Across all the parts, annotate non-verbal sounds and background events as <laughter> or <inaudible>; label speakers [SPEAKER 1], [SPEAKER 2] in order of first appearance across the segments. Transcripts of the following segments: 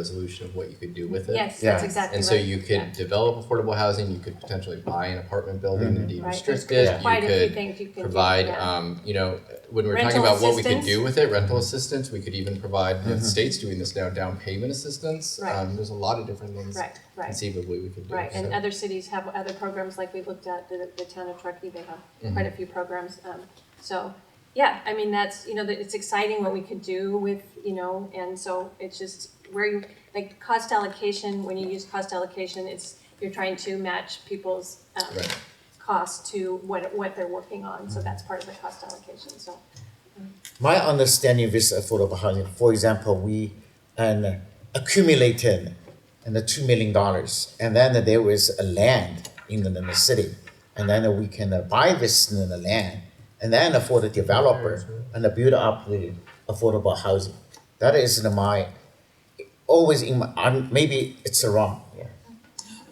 [SPEAKER 1] resolution of what you could do with it.
[SPEAKER 2] Yes,
[SPEAKER 3] Yeah.
[SPEAKER 2] that's exactly right.
[SPEAKER 1] And so you could
[SPEAKER 2] Yeah.
[SPEAKER 1] develop affordable housing, you could potentially buy an apartment building and
[SPEAKER 2] Right, there's
[SPEAKER 1] de-restrict it, you
[SPEAKER 2] Quite a few
[SPEAKER 1] could
[SPEAKER 2] things you can do,
[SPEAKER 1] provide,
[SPEAKER 2] yeah.
[SPEAKER 1] um, you know, when we're talking
[SPEAKER 2] Rental
[SPEAKER 1] about what we could
[SPEAKER 2] assistance.
[SPEAKER 1] do with it, rental assistance, we could even provide, the state's doing this now, down payment assistance.
[SPEAKER 2] Right.
[SPEAKER 1] Um, there's a lot of different things
[SPEAKER 2] Right, right,
[SPEAKER 1] conceivably we could do.
[SPEAKER 2] right, and
[SPEAKER 1] So-
[SPEAKER 2] other cities have other programs, like we looked at, the, the town of Truckee, they
[SPEAKER 1] Mm-hmm.
[SPEAKER 2] have quite a few programs, um, so, yeah, I mean, that's, you know, that it's exciting what we could do with, you know, and so it's just where you, like, cost allocation, when you use cost allocation, it's, you're trying to match people's, um,
[SPEAKER 1] Right. Mm-hmm.
[SPEAKER 2] cost to what, what they're working on, so that's part of the cost allocation, so,
[SPEAKER 3] My understanding of this affordable housing, for example, we an accumulated and the two million dollars, and then there was a land in the, in the city, and then we can uh, buy this in the land, and then for the developer and uh, build up the affordable housing. That is in my always in my I'm, maybe it's wrong. Yeah.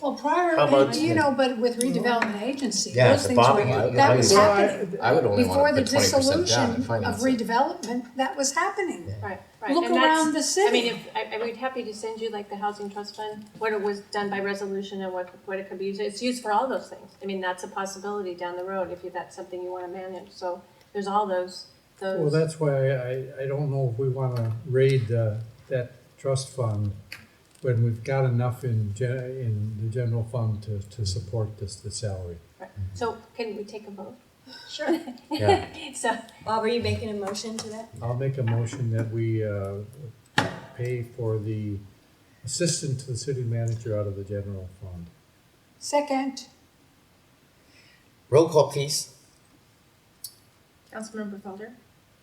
[SPEAKER 4] Well,
[SPEAKER 3] How
[SPEAKER 4] prior,
[SPEAKER 3] about- Mm-hmm.
[SPEAKER 4] you know, but with redevelopment agency,
[SPEAKER 3] Yeah,
[SPEAKER 4] those
[SPEAKER 3] the
[SPEAKER 4] things were,
[SPEAKER 3] bottom line,
[SPEAKER 4] that was
[SPEAKER 3] like-
[SPEAKER 4] happening.
[SPEAKER 2] uh,
[SPEAKER 1] I would only
[SPEAKER 4] Before
[SPEAKER 1] wanna
[SPEAKER 4] the
[SPEAKER 1] put twenty percent
[SPEAKER 4] dissolution
[SPEAKER 1] down and
[SPEAKER 4] of
[SPEAKER 1] finance it.
[SPEAKER 4] redevelopment, that was happening.
[SPEAKER 2] right, right.
[SPEAKER 4] Look
[SPEAKER 2] and that's-
[SPEAKER 4] around the
[SPEAKER 2] I mean,
[SPEAKER 4] city.
[SPEAKER 2] if, I, I would be happy to send you like the housing trust fund, what it was done by resolution and what, what it could be used, it's used for all those things. I mean, that's a possibility down the road if you, that's something you wanna manage, so there's all those,
[SPEAKER 5] Well,
[SPEAKER 2] those,
[SPEAKER 5] that's why I, I don't know if we want to raid uh, that trust fund when we've got enough in, gen- in the general fund to, to support this, the salary.
[SPEAKER 2] so can we take a vote? <laughs>
[SPEAKER 6] Sure.
[SPEAKER 3] Yeah. <laughs>
[SPEAKER 2] So,
[SPEAKER 6] Bob, are you making a motion to that?
[SPEAKER 5] I'll make a motion that we uh, pay for the assistant to the city manager out of the general fund.
[SPEAKER 4] Second,
[SPEAKER 3] Roll call, please.
[SPEAKER 7] Councilmember Felder,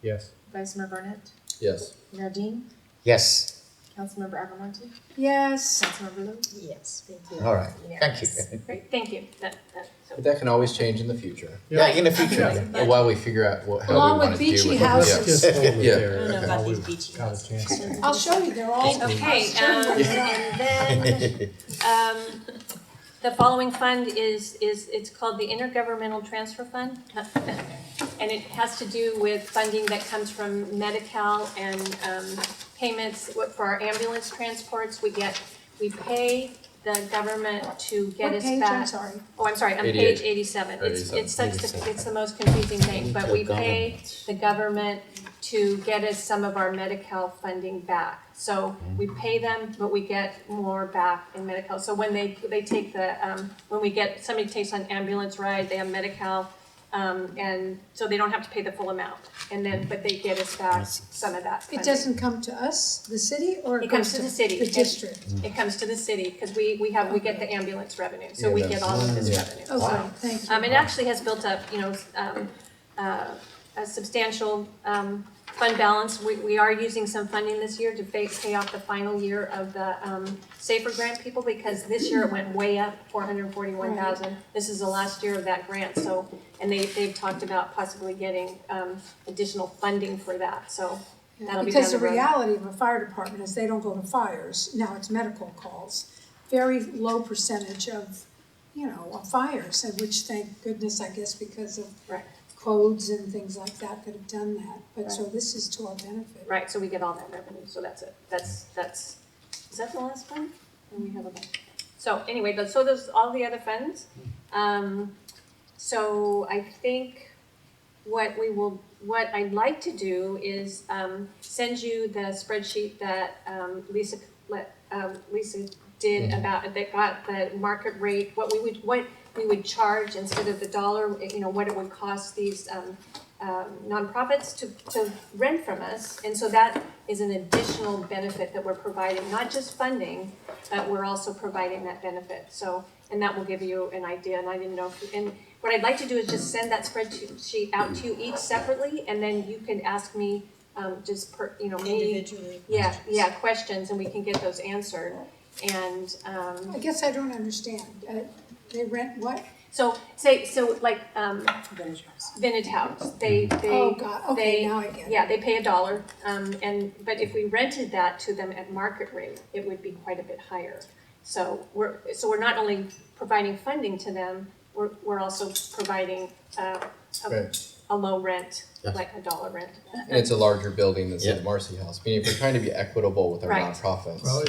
[SPEAKER 5] Yes.
[SPEAKER 7] Vice Mayor Barnett,
[SPEAKER 1] Yes.
[SPEAKER 7] Mayor Dean,
[SPEAKER 3] Yes.
[SPEAKER 7] Councilmember Agamonte,
[SPEAKER 4] yes,
[SPEAKER 7] Councilmember Lou.
[SPEAKER 6] Yes, thank you.
[SPEAKER 3] All right. Thank you.
[SPEAKER 6] Yes.
[SPEAKER 2] great, thank you, that, that,
[SPEAKER 1] But
[SPEAKER 2] so,
[SPEAKER 1] that can always change in the future,
[SPEAKER 3] yeah, in the future.
[SPEAKER 5] Yeah.
[SPEAKER 3] yeah.
[SPEAKER 1] while we figure out what, how we
[SPEAKER 4] Along with
[SPEAKER 1] wanna do with it.
[SPEAKER 4] beachy
[SPEAKER 1] Yeah.
[SPEAKER 5] Let's just hold it
[SPEAKER 1] Yeah.
[SPEAKER 6] I
[SPEAKER 5] there.
[SPEAKER 6] don't know about
[SPEAKER 5] Now
[SPEAKER 6] these
[SPEAKER 5] we've
[SPEAKER 6] beachy
[SPEAKER 5] got a
[SPEAKER 6] houses.
[SPEAKER 5] chance.
[SPEAKER 4] I'll show you, they're all.
[SPEAKER 2] okay, um, and then, um, the following fund is, is, it's called the Intergovernmental Transfer Fund. And it has to do with funding that comes from Medi-Cal and, um, payments what- for our ambulance transports. We get, we pay the government to get
[SPEAKER 4] What
[SPEAKER 2] us
[SPEAKER 4] page, I'm
[SPEAKER 2] back.
[SPEAKER 4] sorry.
[SPEAKER 2] Oh, I'm sorry, on page
[SPEAKER 1] Eighty-eight.
[SPEAKER 2] eighty-seven. It's, it's such, the
[SPEAKER 1] 87.
[SPEAKER 2] it's the most confusing thing, but we pay the government to get us some of our Medi-Cal funding back. So we pay them, but we get more back in Medi-Cal. So when they, they take the, um, when we get, somebody takes an ambulance ride, they have Medi-Cal, um, and so they don't have to pay the full amount. And then, but they get us back some of that
[SPEAKER 4] It
[SPEAKER 2] funding.
[SPEAKER 4] doesn't come to us, the city, or
[SPEAKER 2] It
[SPEAKER 4] it
[SPEAKER 2] comes
[SPEAKER 4] goes
[SPEAKER 2] to the city.
[SPEAKER 4] The district.
[SPEAKER 2] It comes to the city, because we, we have, we get the ambulance revenue, so we get all of this revenue.
[SPEAKER 4] Okay, thank you.
[SPEAKER 2] Um, it actually has built up, you know, um, uh, a substantial, um, fund balance. We, we are using some funding this year to pay, pay off the final year of the, um, Safer Grant people, because this year it went way up, four hundred and forty-one thousand. This is the last year of that grant, so, and they, they've talked about possibly getting, um, additional funding for that, so that'll be down
[SPEAKER 4] Because the
[SPEAKER 2] the road.
[SPEAKER 4] reality of a fire department is they don't go to fires, now it's medical calls. Very low percentage of, you know, of fires, and which thank goodness, I guess, because of
[SPEAKER 2] Right.
[SPEAKER 4] codes and things like that that have done that, but so this is to our benefit.
[SPEAKER 2] Right, so we get all that revenue, so that's it, that's, that's, is that the last one? And we have a bunch. So anyway, those, so those, all the other funds, um, so I think what we will, what I'd like to do is, um, send you the spreadsheet that, um, Lisa, let, um, Lisa did about, that got the market rate, what we would, what we would charge instead of the dollar, you know, what it would cost these, um, um, nonprofits to, to rent from us. And so that is an additional benefit that we're providing, not just funding, but we're also providing that benefit. So, and that will give you an idea, and I didn't know, if and what I'd like to do is just send that spreadsheet out to you each separately, and then you can ask me, um, just per, you know, me,
[SPEAKER 6] Individually.
[SPEAKER 2] yeah, yeah, questions, and we can get those answered. And, um,
[SPEAKER 4] I guess I don't understand, uh, they rent what?
[SPEAKER 2] so, say, so like, um,
[SPEAKER 6] Vintage house.
[SPEAKER 2] Vintage House, they, they.
[SPEAKER 4] Oh, God, okay,
[SPEAKER 2] they-
[SPEAKER 4] now I get it.
[SPEAKER 2] Yeah, they pay a dollar, um, and, but if we rented that to them at market rate, it would be quite a bit higher. So we're, so we're not only providing funding to them, we're, we're also providing, uh, a,
[SPEAKER 1] Right.
[SPEAKER 2] a low rent, like a dollar rent.
[SPEAKER 1] And it's a larger building than say the Marcy House, meaning if we're trying to be equitable with our
[SPEAKER 2] Right.
[SPEAKER 1] nonprofits.
[SPEAKER 5] Well,